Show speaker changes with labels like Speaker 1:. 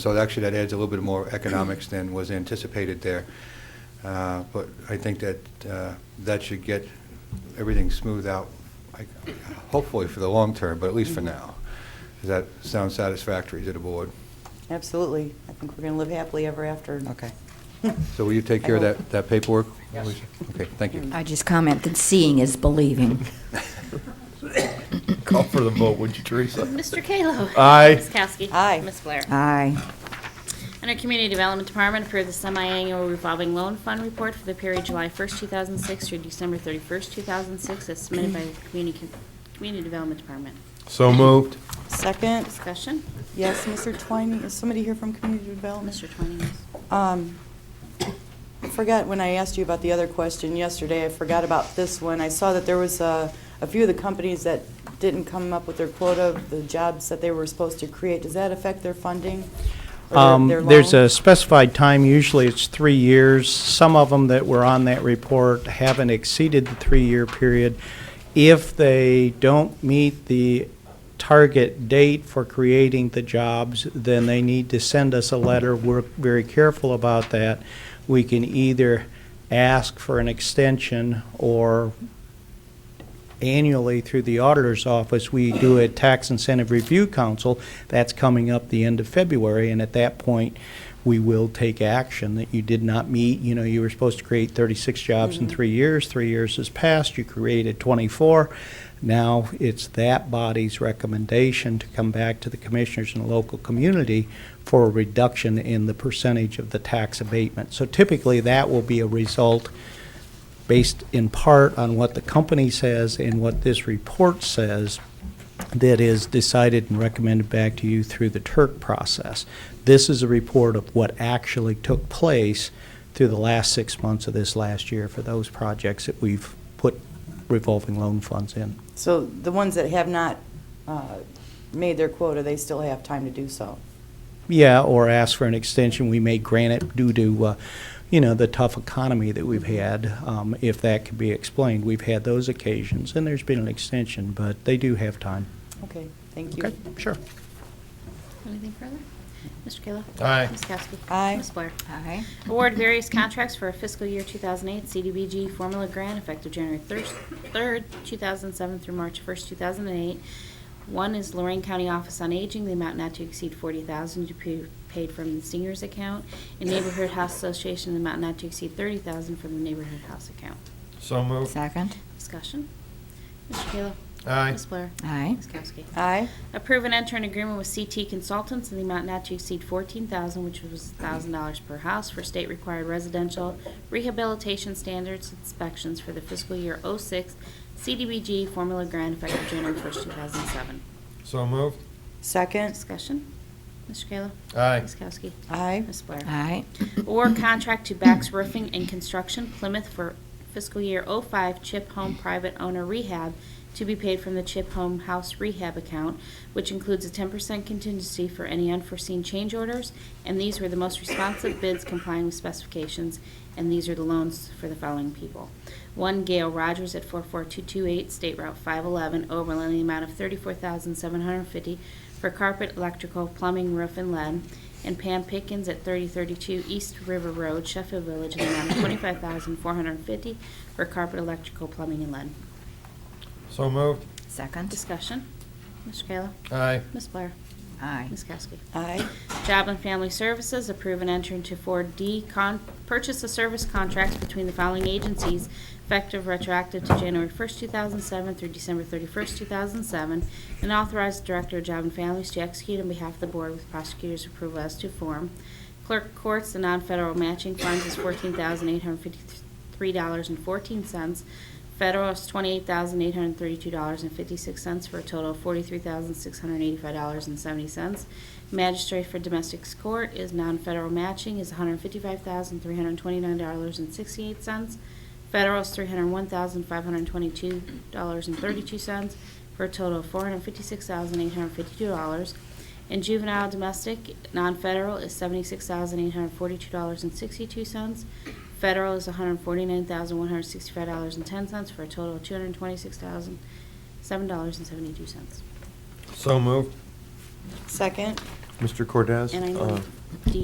Speaker 1: So actually, that adds a little bit more economics than was anticipated there. Uh, But I think that uh, that should get everything smoothed out, I- hopefully for the long term, but at least
Speaker 2: Mm-hmm.
Speaker 1: for now. Does that sound satisfactory to the board?
Speaker 2: Absolutely. I think we're going to live happily ever after.
Speaker 3: Okay.
Speaker 1: So will you take
Speaker 2: I
Speaker 1: care of
Speaker 2: hope.
Speaker 1: that that paperwork? Yes. Okay, thank you.
Speaker 4: I just commented, seeing is believing.
Speaker 5: Call for the vote, would you, Teresa?
Speaker 6: Mr. Kallo?
Speaker 5: Aye.
Speaker 6: Ms. Kowski?
Speaker 2: Aye.
Speaker 6: Ms. Blair?
Speaker 4: Aye.
Speaker 6: Under Community Development Department, approve the semi-annual revolving loan fund report for the period July 1st, 2006 through December 31st, 2006, as submitted by the Community Community Development Department.
Speaker 5: So moved.
Speaker 2: Second,
Speaker 6: Discussion?
Speaker 2: yes, Mr. Twining, is somebody here from Community Development?
Speaker 6: Mr. Twining?
Speaker 2: Um, I forgot when I asked you about the other question yesterday, I forgot about this one. I saw that there was a, a few of the companies that didn't come up with their quota of the jobs that they were supposed to create. Does that affect their funding? or their-
Speaker 7: Um,
Speaker 2: their
Speaker 7: There's
Speaker 2: loan?
Speaker 7: a specified time, usually it's three years. Some of them that were on that report haven't exceeded the three-year period. If they don't meet the target date for creating the jobs, then they need to send us a letter. We're very careful about that. We can either ask for an extension or annually through the auditor's office, we do a tax incentive review council. That's coming up the end of February, and at that point, we will take action that you did not meet. You know, you were supposed to create 36 jobs in three years. Three years has passed. You created 24. Now it's that body's recommendation to come back to the commissioners and local community for a reduction in the percentage of the tax abatement. So typically, that will be a result based in part on what the company says and what this report says that is decided and recommended back to you through the TURC process. This is a report of what actually took place through the last six months of this last year for those projects that we've put revolving loan funds in.
Speaker 2: So the ones that have not uh, made their quota, they still have time to do so.
Speaker 7: Yeah, or ask for an extension. We may grant it due to, uh, you know, the tough economy that we've had, um, if that could be explained. We've had those occasions, and there's been an extension, but they do have time.
Speaker 2: Okay, thank you.
Speaker 7: Okay, sure.
Speaker 6: Anything further? Mr. Kallo?
Speaker 5: Aye.
Speaker 6: Ms. Kowski?
Speaker 2: Aye.
Speaker 6: Ms. Blair?
Speaker 4: Aye.
Speaker 6: Award various contracts for fiscal year 2008 CDBG formula grant effective January thir- 3rd, 2007 through March 1st, 2008. One is Lorraine County Office on Aging, the amount not to exceed 40000 to be paid from the seniors account, and Neighborhood House Association, the amount not to exceed 30000 from the Neighborhood House account.
Speaker 5: So moved.
Speaker 4: Second.
Speaker 6: Discussion? Mr. Kayla?
Speaker 5: Aye.
Speaker 6: Ms. Blair?
Speaker 4: Aye.
Speaker 6: Ms. Kowski?
Speaker 2: Aye,
Speaker 6: Approve and enter an agreement with CT Consultants in the amount not to exceed fourteen thousand, which was thousand dollars per house for state required residential rehabilitation standards inspections for the fiscal year 06 CDBG formula grant effective January first, two thousand seven.
Speaker 5: So moved.
Speaker 2: second,
Speaker 6: Discussion? Mr. Kayla?
Speaker 5: Aye.
Speaker 6: Ms. Kowski?
Speaker 2: aye,
Speaker 6: Ms. Blair?
Speaker 4: Aye.
Speaker 6: Or contract to Bax Roofing and Construction Plymouth for fiscal year 05 CHIP Home Private Owner Rehab to be paid from the CHIP Home House Rehab account, which includes a 10% contingency for any unforeseen change orders, and these were the most responsive bids complying with specifications, and these are the loans for the following people. One, Gail Rogers at 44228 State Route 511, Oberlin, in the amount of 34750 for carpet, electrical, plumbing, roof, and lead, and Pam Pickens at 3032 East River Road, Sheffield Village, in the amount of 25450 for carpet, electrical, plumbing, and lead.
Speaker 5: So moved.
Speaker 4: Second.
Speaker 6: Discussion. Mr. Kayla?
Speaker 5: Aye.
Speaker 6: Ms. Blair?
Speaker 4: Aye.
Speaker 6: Ms. Kowski?
Speaker 2: aye,
Speaker 6: Job and Family Services, approve and enter into 4D con, purchase of service contracts between the following agencies effective retroactive to January 1st, 2007 through December 31st, 2007, and authorize the Director of Job and Families to execute on behalf of the Board with prosecutor's approval as to form. Clerk Courts, the non-federal matching funds is $14,853.14. Federal is $28,832.56 for a total of $43,685.70. Magistrate for domestic court is non-federal matching is $155,329.68. Federal is $301,522.32 for a total of $456,852. And juvenile domestic, non-federal is $76,842.62. Federal is $149,165.10 for a total of $226,007.72.
Speaker 5: So moved.
Speaker 2: second,
Speaker 5: Mr. Cortez?
Speaker 6: And I
Speaker 5: uh,
Speaker 6: know D